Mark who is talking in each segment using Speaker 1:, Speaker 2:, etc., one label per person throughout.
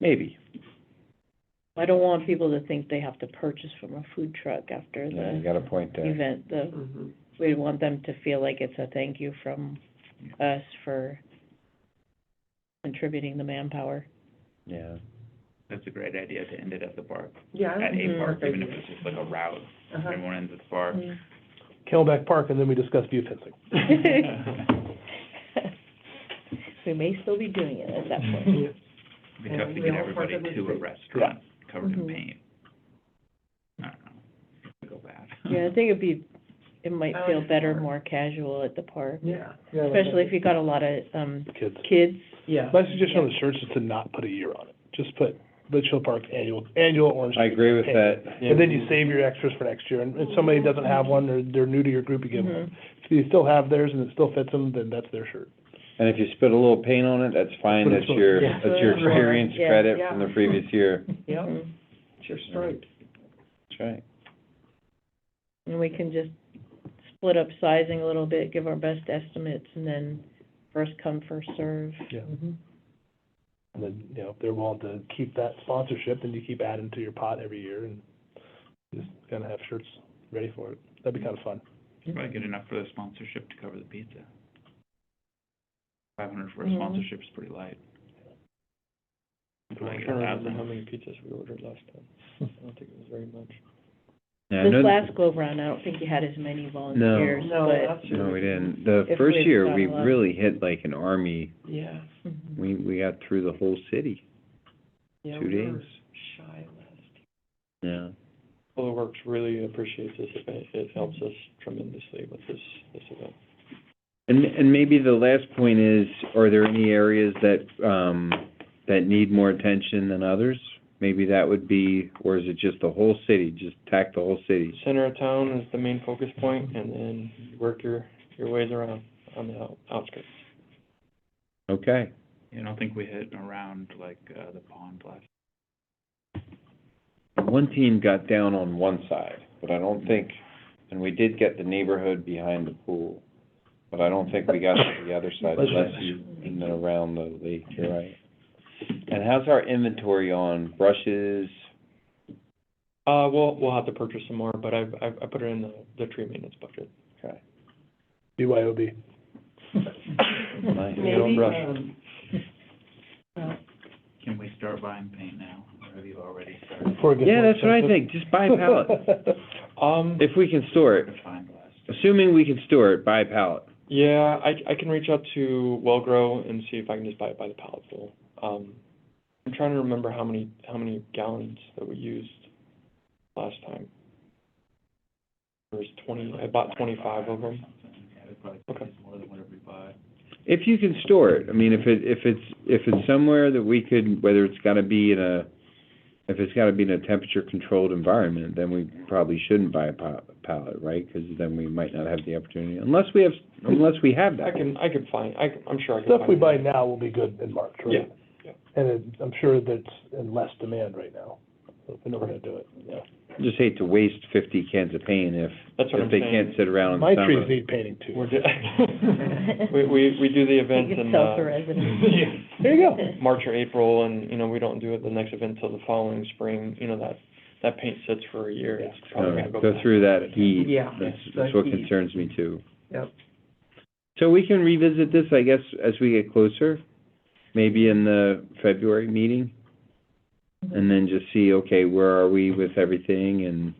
Speaker 1: Maybe.
Speaker 2: I don't want people to think they have to purchase from a food truck after
Speaker 1: Yeah, you
Speaker 2: the
Speaker 1: got a point there.
Speaker 2: event, the,
Speaker 3: Mm-hmm.
Speaker 2: we want them to feel like it's a thank you from us for contributing the manpower.
Speaker 1: Yeah.
Speaker 3: That's a great idea to end it at the park,
Speaker 4: Yeah. I
Speaker 3: at a
Speaker 2: Mhm.
Speaker 4: don't-
Speaker 3: park, even if it's just like a route,
Speaker 4: Uh-huh.
Speaker 3: everyone ends at the park.
Speaker 2: Mm.
Speaker 5: Camelback Park, and then we discuss view fencing.
Speaker 2: We may still be doing it at that
Speaker 3: Mm-hmm.
Speaker 2: point.
Speaker 3: It'd be tough
Speaker 4: Yeah,
Speaker 3: to get
Speaker 4: we'll
Speaker 3: everybody
Speaker 4: work on
Speaker 3: to a
Speaker 4: this.
Speaker 3: restaurant covered in
Speaker 2: Mhm.
Speaker 3: paint. I don't know, It'd go bad.
Speaker 2: Yeah, I think it'd be, it might
Speaker 4: I
Speaker 2: feel
Speaker 4: like the
Speaker 2: better,
Speaker 4: park.
Speaker 2: more casual at the park,
Speaker 4: Yeah.
Speaker 2: especially if you got a lot of, um,
Speaker 5: Kids.
Speaker 2: kids.
Speaker 4: Yeah.
Speaker 5: My suggestion on the shirts is to not put a year on it. Just put Litchfield Park annual, annual orange.
Speaker 1: I agree with that.
Speaker 5: And then you save your extras for next year. And if somebody doesn't have one, or they're new to your group, you give them. one.
Speaker 2: Mhm.
Speaker 5: If you still have theirs and it still fits them, then that's their shirt.
Speaker 1: And if you spit a little paint on it, that's fine,
Speaker 5: But
Speaker 1: that's
Speaker 5: it's what-
Speaker 1: your,
Speaker 4: Yeah.
Speaker 1: that's your
Speaker 4: That's what-
Speaker 1: experience
Speaker 2: yeah.
Speaker 1: credit from the
Speaker 4: Yeah.
Speaker 1: previous year.
Speaker 4: Yeah,
Speaker 2: Mhm.
Speaker 4: it's your stripes.
Speaker 1: That's right.
Speaker 2: And we can just split up sizing a little bit, give our best estimates, and then first come, first serve.
Speaker 5: Yeah.
Speaker 3: Mm-hmm.
Speaker 5: And then, you know, if they're willing to keep that sponsorship, then you keep adding to your pot every year and just kind of have shirts ready for it. That'd be kind of fun.
Speaker 3: Probably good enough for the sponsorship to cover the pizza. Five hundred for a
Speaker 2: Mhm.
Speaker 3: sponsorship is pretty light. Probably get a thousand.
Speaker 5: many pizzas we ordered last time. I don't think it was very much.
Speaker 1: Yeah, I
Speaker 2: This
Speaker 1: know-
Speaker 2: last go round, I don't think you had as many volunteers,
Speaker 4: No,
Speaker 2: but.
Speaker 4: that's true.
Speaker 1: No, we didn't. The
Speaker 2: If
Speaker 1: first
Speaker 2: we've
Speaker 1: year,
Speaker 2: got
Speaker 1: we
Speaker 2: a lot.
Speaker 1: really hit like an army.
Speaker 4: Yeah,
Speaker 2: Mhm.
Speaker 1: We, we got through the whole city,
Speaker 4: yeah,
Speaker 1: Two
Speaker 4: we were
Speaker 1: days.
Speaker 4: shy last.
Speaker 1: yeah.
Speaker 6: Public Works really appreciates this event. It helps us tremendously with this, this event.
Speaker 1: And, and maybe the last point is, are there any areas that, um, that need more attention than others? Maybe that would be, or is it just the whole city, just attack the whole city?
Speaker 6: Center of town is the main focus point, and then work your, your ways around on the out- outskirts.
Speaker 1: Okay,
Speaker 3: Yeah, I don't think we hit around like, uh, the pond last,
Speaker 1: one team got down on one side, but I don't think, and we did get the neighborhood behind the pool, but I don't think we got to the other side unless you, and then around the lake, you're right. And how's our inventory on brushes?
Speaker 6: Uh, we'll, we'll have to purchase some more, but I've, I've, I put it in the, the tree maintenance budget.
Speaker 1: Okay,
Speaker 5: BYOB.
Speaker 1: nice.
Speaker 6: You don't
Speaker 4: Maybe,
Speaker 6: rush.
Speaker 4: um, well,
Speaker 3: can we start buying paint now, or have you already started
Speaker 5: Before it gets
Speaker 1: Yeah,
Speaker 5: more
Speaker 1: that's what I
Speaker 5: expensive.
Speaker 1: think, just buy a pallet,
Speaker 6: Um,
Speaker 1: if we can store it.
Speaker 3: to find last?
Speaker 1: Assuming we can store it by pallet.
Speaker 6: yeah, I, I can reach out to Wellgrow and see if I can just buy it by the pallet full. Um, I'm trying to remember how many, how many gallons that we used last time. There was twenty, I bought twenty-five of them.
Speaker 3: Yeah, it probably
Speaker 6: Okay.
Speaker 3: is more than whatever we buy.
Speaker 1: If you can store it, I mean, if it, if it's, if it's somewhere that we could, whether it's gotta be in a, if it's gotta be in a temperature-controlled environment, then we probably shouldn't buy a pa- pallet, right? Because then we might not have the opportunity, unless we have, unless we have
Speaker 6: I
Speaker 1: that.
Speaker 6: can, I can find, I, can- I'm sure I can find.
Speaker 5: Stuff we
Speaker 6: it.
Speaker 5: buy now will be good in March,
Speaker 6: Yeah,
Speaker 5: right? And it- I'm sure that's in less demand right now, so we know we're gonna do it, yeah.
Speaker 1: Just hate to waste fifty cans of paint if,
Speaker 6: That's what
Speaker 1: if
Speaker 6: I'm
Speaker 1: they
Speaker 6: saying.
Speaker 1: can't sit around in
Speaker 5: My
Speaker 1: the
Speaker 5: trees
Speaker 1: summer.
Speaker 5: need painting
Speaker 6: We're
Speaker 5: too.
Speaker 6: do- we, we, we do the events
Speaker 2: You can
Speaker 6: in,
Speaker 2: sell
Speaker 6: uh,
Speaker 2: to residents.
Speaker 6: yeah,
Speaker 5: There you go.
Speaker 6: March or April, and, you know, we don't do it the next event till the following spring, you know, that, that paint sits for a year, it's probably
Speaker 1: Uh,
Speaker 6: gonna go.
Speaker 1: Go
Speaker 6: back.
Speaker 1: through that heat.
Speaker 4: Yeah,
Speaker 1: That's,
Speaker 4: the
Speaker 1: that's what
Speaker 4: heat.
Speaker 1: concerns me too.
Speaker 4: Yep.
Speaker 1: So we can revisit this, I guess, as we get closer, maybe in the February meeting? And then just see, okay, where are we with everything and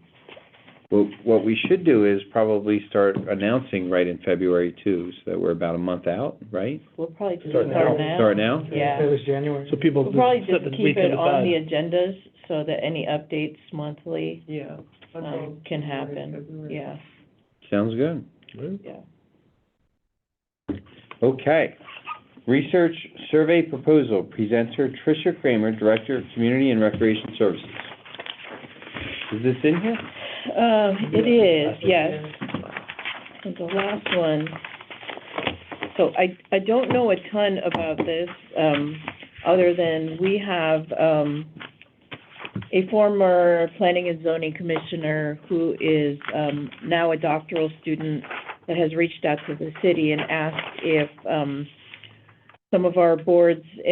Speaker 1: what, what we should do is probably start announcing right in February too, so that we're about a month out, right?
Speaker 2: We'll probably just
Speaker 5: Start
Speaker 2: start
Speaker 5: now.
Speaker 2: now.
Speaker 1: Start now?
Speaker 2: Yeah.
Speaker 4: was January.
Speaker 5: So people
Speaker 2: We'll probably
Speaker 5: set the
Speaker 2: just keep
Speaker 5: weekend
Speaker 2: it on the
Speaker 5: aside.
Speaker 2: agendas so that any updates monthly,
Speaker 4: Yeah. that's all
Speaker 2: um, can
Speaker 4: January,
Speaker 2: happen,
Speaker 4: February.
Speaker 2: yeah,
Speaker 1: Sounds good.
Speaker 2: yeah.
Speaker 1: Okay. Research Survey Proposal, presenter Tricia Kramer, Director of Community and Recreation Services. Is this in here?
Speaker 2: Um, it is, yes. And the last one, so I, I don't know a ton about this, um, other than we have, um, a former planning and zoning commissioner who is, um, now a doctoral student that has reached out to the city and asked if, um, some of our boards